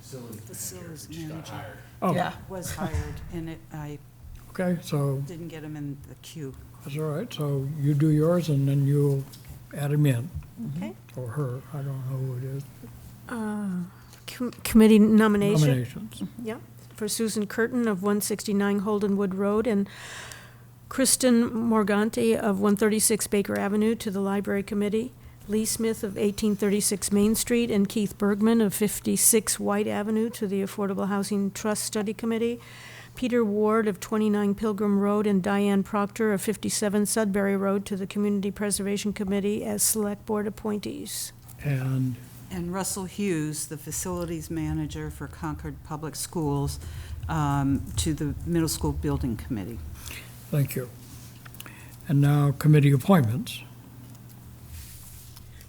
facilities manager, Facilities who just got manager. hired. Oh, Was hired, and it, I okay, so didn't get him in the queue. that's all right. So you do yours and then you'll add him in, Okay. or her, I don't know who it is. Com- Committee nomination, Nominations. yeah, for Susan Curtin of 169 Holdenwood Road and Kristen Morganti of 136 Baker Avenue to the Library Committee, Lee Smith of 1836 Main Street, and Keith Bergman of 56 White Avenue to the Affordable Housing Trust Study Committee, Peter Ward of 29 Pilgrim Road and Diane Proctor of 57 Sudbury Road to the Community Preservation Committee as Select Board appointees. And And Russell Hughes, the facilities manager for Concord Public Schools, um, to the Middle School Building Committee. Thank you. And now committee appointments.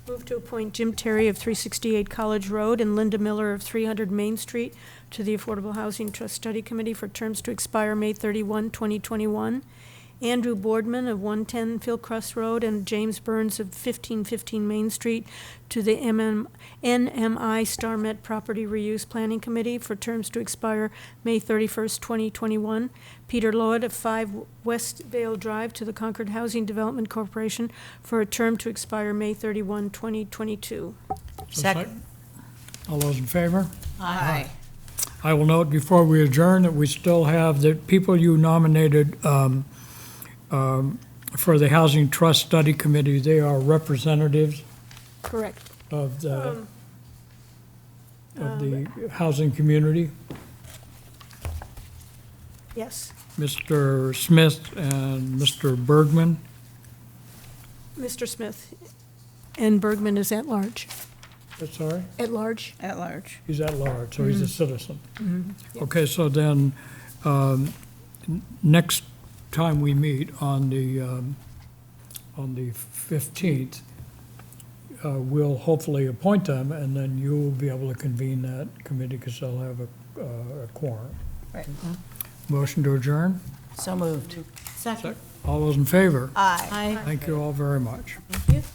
Move to appoint Jim Terry of 368 College Road and Linda Miller of 300 Main Street to the Affordable Housing Trust Study Committee for terms to expire May 31, 2021. Andrew Boardman of 110 Philcrust Road and James Burns of 1515 Main Street to the MM NMI Star Met Property Reuse Planning Committee for terms to expire May 31st, 2021. Peter Lloyd of 5 West Vale Drive to the Concord Housing Development Corporation for a term to expire May 31, 2022. So sec- Second. All those in favor? Aye. I will note before we adjourn that we still have the people you nominated um, um, for the Housing Trust Study Committee, they are representatives Correct. of the, of the housing community. Yes. Mr. Smith and Mr. Bergman. Mr. Smith and Bergman is at large. Sorry? At large? At large. He's at large, so he's a Mm-hmm. citizen. Okay, so then, um, n- next time we meet on the, um, on the 15th, uh, we'll hopefully appoint them, and then you'll be able to convene that committee, because they'll have a uh, a quorum. Right. Motion to adjourn? So moved. All those in favor? Aye. Thank you all very much. Thank you.